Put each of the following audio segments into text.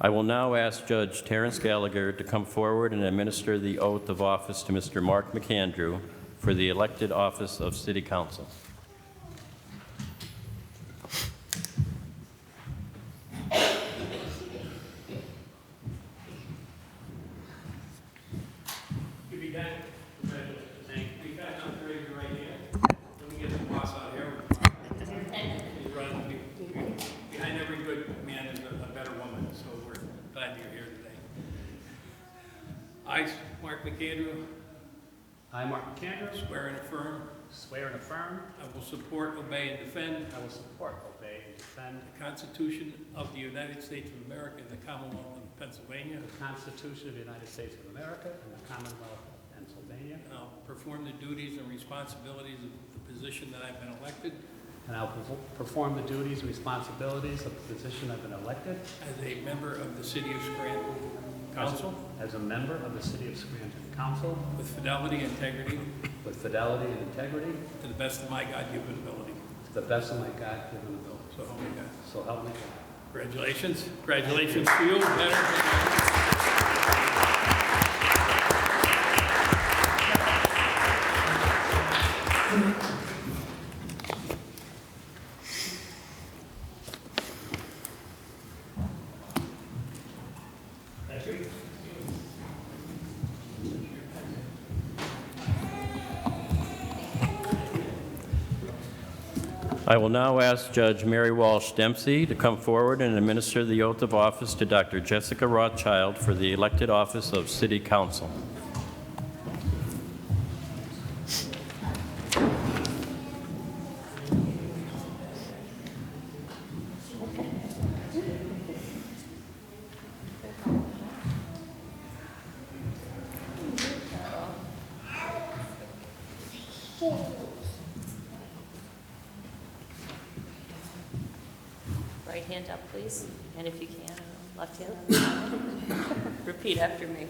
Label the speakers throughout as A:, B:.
A: I will now ask Judge Terrence Gallagher to come forward and administer the oath of office to Mr. Mark McAndrew for the elected office of City Council.
B: Good to be back. Congratulations. Thank you. We've got enough area right here. Let me get the boss out here. He's running be- Behind every good man is a a better woman, so we're glad you're here today. I, Mark McAndrew,
C: I, Mark McAndrew,
B: swear and affirm
C: swear and affirm
B: I will support, obey, and defend
C: I will support, obey, and defend
B: the Constitution of the United States of America and the Commonwealth of Pennsylvania.
C: the Constitution of the United States of America and the Commonwealth of Pennsylvania,
B: And I'll perform the duties and responsibilities of the position that I've been elected
C: and I will perf- perform the duties and responsibilities of the position I've been elected
B: as a member of the City of Scranton Council.
C: as a member of the City of Scranton Council
B: With fidelity, integrity,
C: with fidelity and integrity
B: to the best of my God-given ability.
C: to the best of my God-given ability.
B: So help me God.
C: So help me God.
B: Congratulations. Congratulations to you. Better-
A: I will now ask Judge Mary Walsh Dempsey to come forward and administer the oath of office to Dr. Jessica Rothschild for the elected office of City Council.
D: Right hand up, please, and if you can, uh, left hand. Repeat after me.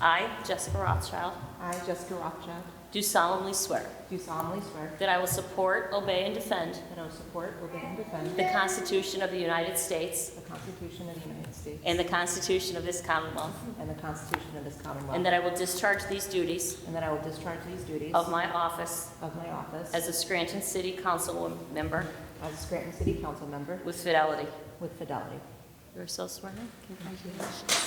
D: I, Jessica Rothschild,
E: I, Jessica Rothschild,
D: do solemnly swear
E: do solemnly swear
D: that I will support, obey, and defend
E: that I will support, obey, and defend
D: the Constitution of the United States
E: the Constitution of the United States
D: and the Constitution of this Commonwealth,
E: and the Constitution of this Commonwealth,
D: and that I will discharge these duties
E: and that I will discharge these duties
D: of my office
E: of my office
D: as a Scranton City Council member
E: as a Scranton City Council member
D: with fidelity.
E: with fidelity.
D: You're so sworn in. Congratulations.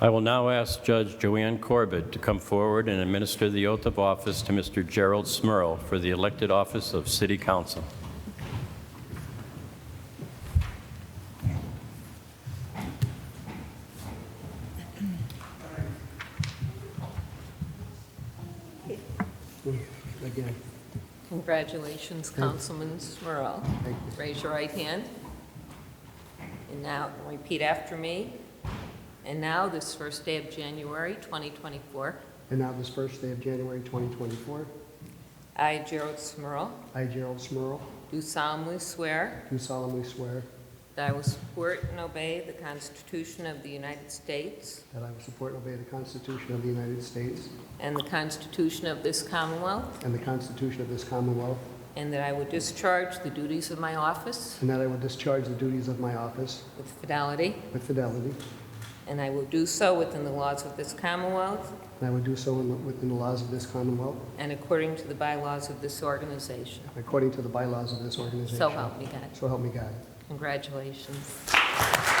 A: I will now ask Judge Joanne Corbett to come forward and administer the oath of office to Mr. Gerald Smurl for the elected office of City Council.
F: Again,
G: Congratulations, Councilman Smurl. Raise your right hand. And now, repeat after me. And now, this first day of January 2024,
F: and now this first day of January 2024,
G: I, Gerald Smurl,
F: I, Gerald Smurl,
G: do solemnly swear
F: do solemnly swear
G: that I will support and obey the Constitution of the United States
F: that I will support and obey the Constitution of the United States
G: and the Constitution of this Commonwealth,
F: and the Constitution of this Commonwealth,
G: and that I will discharge the duties of my office
F: and that I will discharge the duties of my office
G: with fidelity,
F: with fidelity,
G: and I will do so within the laws of this Commonwealth
F: and I will do so in the- within the laws of this Commonwealth,
G: and according to the bylaws of this organization.
F: according to the bylaws of this organization.
G: So help me God.
F: So help me God.
G: Congratulations.